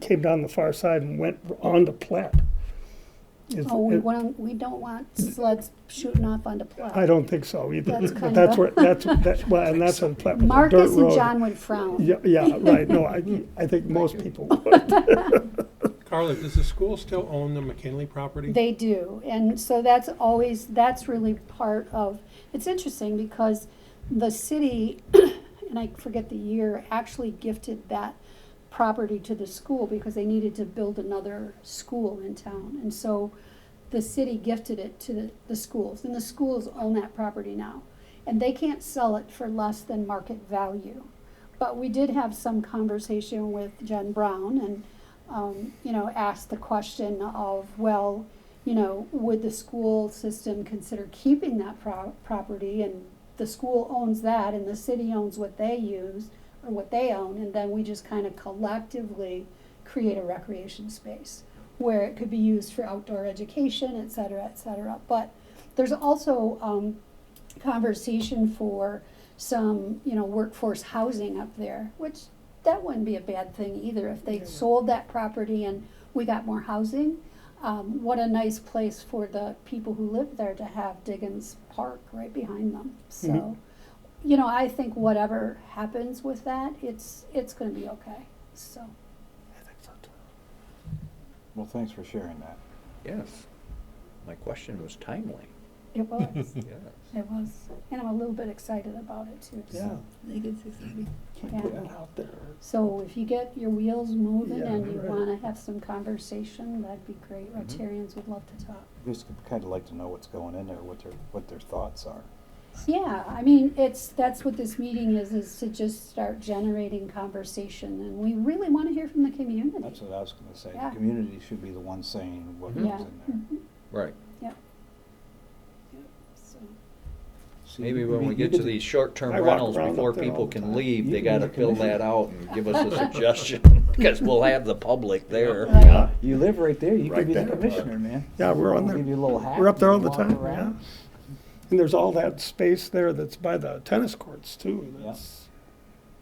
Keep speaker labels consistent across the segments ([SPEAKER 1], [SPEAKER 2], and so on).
[SPEAKER 1] came down the far side and went on the plat. Is-
[SPEAKER 2] Oh, we want, we don't want sleds shooting off onto
[SPEAKER 1] I
[SPEAKER 2] plow.
[SPEAKER 1] don't think so either,
[SPEAKER 2] That's
[SPEAKER 1] but
[SPEAKER 2] kind
[SPEAKER 1] that's
[SPEAKER 2] of-
[SPEAKER 1] where, that's, that, well, and that's on plat, with a dirt
[SPEAKER 2] Marcus and
[SPEAKER 1] road.
[SPEAKER 2] John would frown.
[SPEAKER 1] Yeah, yeah, right, no, I, I think most people would.
[SPEAKER 3] Carla, does the school still own the McKinley property?
[SPEAKER 2] They do, and so that's always, that's really part of, it's interesting because the city, and I forget the year, actually gifted that property to the school because they needed to build another school in town. And so the city gifted it to the, the schools, and the schools own that property now. And they can't sell it for less than market value. But we did have some conversation with Jen Brown and, um, you know, asked the question of, well, you know, would the school system consider keeping that pro- property? And the school owns that and the city owns what they use or what they own, and then we just kind of collectively create a recreation space where it could be used for outdoor education, et cetera, et cetera. But there's also, um, conversation for some, you know, workforce housing up there, which that wouldn't be a bad thing either if they sold that property and we got more housing. Um, what a nice place for the people who live there to have Diggins Park right behind them. So,
[SPEAKER 1] Mhm.
[SPEAKER 2] you know, I think whatever happens with that, it's it's going to be okay. So,
[SPEAKER 4] Well, thanks for sharing that.
[SPEAKER 5] Yes. My question was timely.
[SPEAKER 2] it was,
[SPEAKER 5] Yes.
[SPEAKER 2] it was, and I'm a little bit excited about it too. So.
[SPEAKER 1] Yeah,
[SPEAKER 2] Yeah.
[SPEAKER 1] put it out there.
[SPEAKER 2] So if you get your wheels moving
[SPEAKER 1] Yeah,
[SPEAKER 2] and you
[SPEAKER 1] right. Mm-hmm.
[SPEAKER 2] wanna have some conversation, that'd be great. Rotarians would love to talk.
[SPEAKER 4] Just kind of like to know what's going in there, what their, what their thoughts are.
[SPEAKER 2] Yeah, I mean, it's, that's what this meeting is, is to just start generating conversation and we really wanna hear from the
[SPEAKER 4] That's
[SPEAKER 2] community.
[SPEAKER 4] what I was gonna say.
[SPEAKER 2] Yeah.
[SPEAKER 4] The community should be the one saying what
[SPEAKER 2] Yeah. Mm-hmm.
[SPEAKER 4] goes in there.
[SPEAKER 2] Hmm.
[SPEAKER 5] Right.
[SPEAKER 2] So,
[SPEAKER 4] See,
[SPEAKER 5] Maybe
[SPEAKER 4] you
[SPEAKER 5] when
[SPEAKER 4] mean,
[SPEAKER 5] we
[SPEAKER 4] you
[SPEAKER 5] get to these short-term
[SPEAKER 1] I walk
[SPEAKER 5] rentals,
[SPEAKER 1] around up
[SPEAKER 5] before
[SPEAKER 1] there all
[SPEAKER 5] people
[SPEAKER 1] the
[SPEAKER 5] can
[SPEAKER 1] time.
[SPEAKER 5] leave,
[SPEAKER 4] You
[SPEAKER 5] they
[SPEAKER 4] can
[SPEAKER 5] gotta
[SPEAKER 4] make a
[SPEAKER 5] fill
[SPEAKER 4] living.
[SPEAKER 5] that out and give us a suggestion, because we'll have the public there.
[SPEAKER 2] Right.
[SPEAKER 1] Yeah,
[SPEAKER 4] You live right there, you
[SPEAKER 1] Right
[SPEAKER 4] could be the
[SPEAKER 1] there.
[SPEAKER 4] commissioner, man.
[SPEAKER 1] yeah, we're on
[SPEAKER 4] We'll Give you
[SPEAKER 1] there,
[SPEAKER 4] a little hat.
[SPEAKER 1] we're up there all the
[SPEAKER 4] you can
[SPEAKER 1] time,
[SPEAKER 4] walk
[SPEAKER 1] yeah.
[SPEAKER 4] around.
[SPEAKER 1] And there's all that space there that's by the tennis courts too,
[SPEAKER 4] Yeah.
[SPEAKER 1] that's,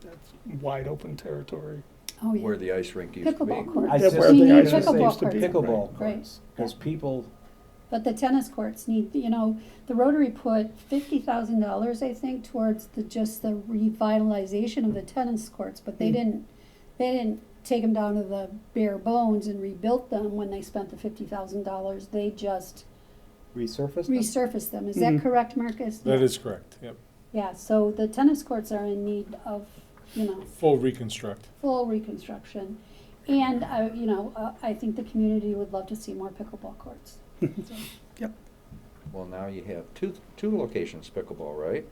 [SPEAKER 1] that's wide open territory.
[SPEAKER 2] Oh,
[SPEAKER 5] Where
[SPEAKER 2] yeah.
[SPEAKER 5] the ice rink used to be.
[SPEAKER 2] Pickleball courts.
[SPEAKER 4] I
[SPEAKER 1] That's
[SPEAKER 4] just-
[SPEAKER 1] where the
[SPEAKER 2] We need
[SPEAKER 1] ice rink
[SPEAKER 2] pickleball
[SPEAKER 1] used to be.
[SPEAKER 2] courts.
[SPEAKER 4] Pickleball
[SPEAKER 2] Right.
[SPEAKER 4] courts, because people,
[SPEAKER 2] But the tennis courts need, you know, the Rotary put fifty thousand dollars, I think, towards the, just the revitalization of the tennis courts, but they
[SPEAKER 1] Mm.
[SPEAKER 2] didn't, they didn't take them down to the bare bones and rebuilt them when they spent the fifty thousand dollars, they just
[SPEAKER 4] resurface them.
[SPEAKER 2] resurfaced them, is that
[SPEAKER 1] Mhm.
[SPEAKER 2] correct, Marcus?
[SPEAKER 6] That is correct, yep.
[SPEAKER 2] Yeah, so the tennis courts are in need of, you know,
[SPEAKER 6] Full reconstruct.
[SPEAKER 2] full reconstruction, and, uh, you know, uh, I think the community would love to see more pickleball courts. So,
[SPEAKER 5] Well, now you have two, two locations pickleball, right?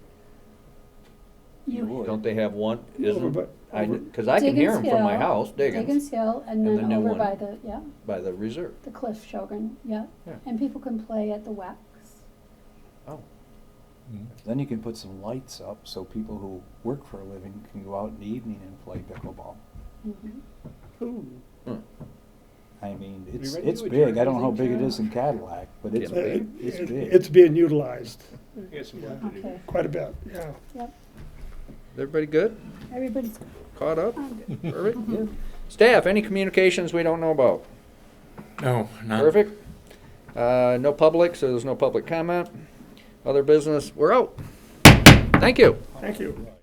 [SPEAKER 2] You
[SPEAKER 4] would.
[SPEAKER 5] Don't they have one,
[SPEAKER 1] Over
[SPEAKER 5] isn't,
[SPEAKER 1] by-
[SPEAKER 5] I,
[SPEAKER 1] over-
[SPEAKER 5] cause I can hear them from my
[SPEAKER 2] Diggins Hill.
[SPEAKER 5] house, Diggins,
[SPEAKER 2] Higgins Hill, and
[SPEAKER 5] And
[SPEAKER 2] then
[SPEAKER 5] the new
[SPEAKER 2] over
[SPEAKER 5] one.
[SPEAKER 2] by the, yeah,
[SPEAKER 5] by the reserve.
[SPEAKER 2] the Cliff Shogun, yeah.
[SPEAKER 5] Yeah.
[SPEAKER 2] And people can play at the wax.
[SPEAKER 5] Oh,
[SPEAKER 6] Mm-hmm.
[SPEAKER 4] Then you can put some lights up, so people who work for a living can go out in the evening and play pickleball.
[SPEAKER 2] Mhm.
[SPEAKER 4] I mean, it's,
[SPEAKER 3] ready to
[SPEAKER 4] it's
[SPEAKER 3] adjourn?
[SPEAKER 4] big. I don't know how
[SPEAKER 3] Is
[SPEAKER 4] big it is in Cadillac, but it's
[SPEAKER 5] Yeah.
[SPEAKER 1] Uh,
[SPEAKER 4] big,
[SPEAKER 1] it-
[SPEAKER 4] it's
[SPEAKER 1] it-
[SPEAKER 4] big.
[SPEAKER 1] It's being utilized
[SPEAKER 3] I got some work to do.
[SPEAKER 2] Okay,
[SPEAKER 1] quite a bit, yeah.
[SPEAKER 2] yep,
[SPEAKER 5] everybody good?
[SPEAKER 2] everybody's
[SPEAKER 5] Caught up?
[SPEAKER 2] on.
[SPEAKER 5] Perfect? Yeah. Staff, any communications we don't know about?
[SPEAKER 6] No, not.
[SPEAKER 5] Perfect. Uh, No public, so there's no public comment. Other business, we're out. Thank you.
[SPEAKER 1] Thank you.